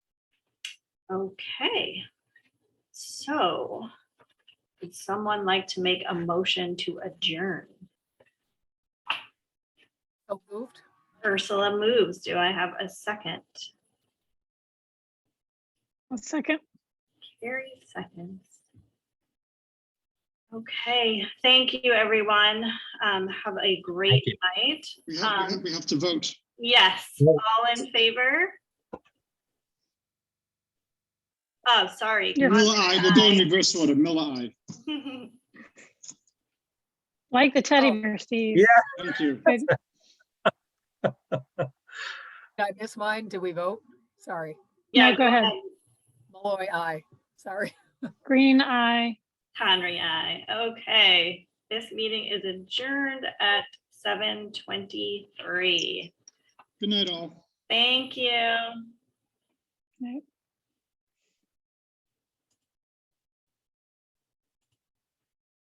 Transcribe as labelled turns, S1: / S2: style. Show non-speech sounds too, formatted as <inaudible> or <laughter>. S1: Okay. So would someone like to make a motion to adjourn?
S2: So moved.
S1: Ursula moves. Do I have a second?
S3: A second.
S1: Carrie seconds. Okay, thank you, everyone. Um, have a great
S4: Thank you.
S1: night.
S5: We have, we
S1: Um,
S5: have- we have to vote.
S1: Yes,
S4: Yeah.
S1: all in favor? Oh, sorry.
S3: You're-
S5: Miller, I will
S1: <laughs>
S5: go in
S1: Aye.
S5: reverse order. Miller, I.
S3: Like the teddy
S2: Oh.
S3: bear, Steve.
S4: Yeah.
S5: Thank you.
S2: Did I miss mine? Did we vote? Sorry.
S1: Yeah,
S3: No, go ahead.
S2: Malloy, aye. Sorry.
S3: Green eye.
S1: Conry, aye. Okay, this meeting is adjourned at seven twenty-three.
S5: Good night, all.
S1: Thank you.